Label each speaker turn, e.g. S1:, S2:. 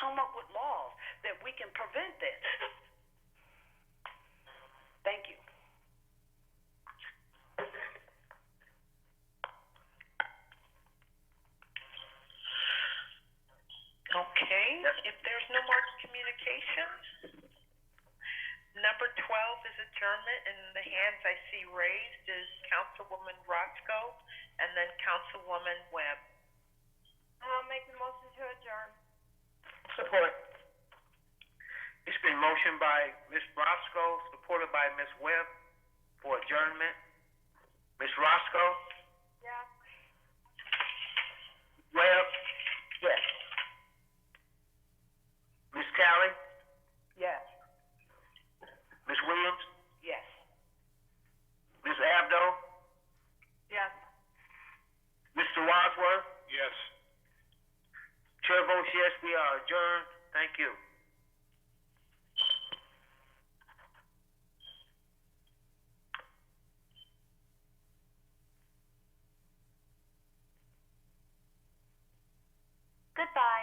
S1: come up with laws that we can prevent this. Thank you. Okay, if there's no more communication, number 12 is adjournment, and the hands I see raised is Councilwoman Roscoe and then Councilwoman Webb.
S2: I'll make the motion to adjourn.
S3: Support. It's been motioned by Ms. Roscoe, supported by Ms. Webb for adjournment. Ms. Roscoe,
S2: Yes.
S3: Webb,
S1: Yes.
S3: Ms. Tally,
S1: Yes.
S3: Ms. Williams,
S1: Yes.
S3: Ms. Abdo,
S2: Yes.
S3: Mr. Wadsworth.
S4: Yes.
S3: Chair votes yes, we are adjourned. Thank you.
S2: Goodbye.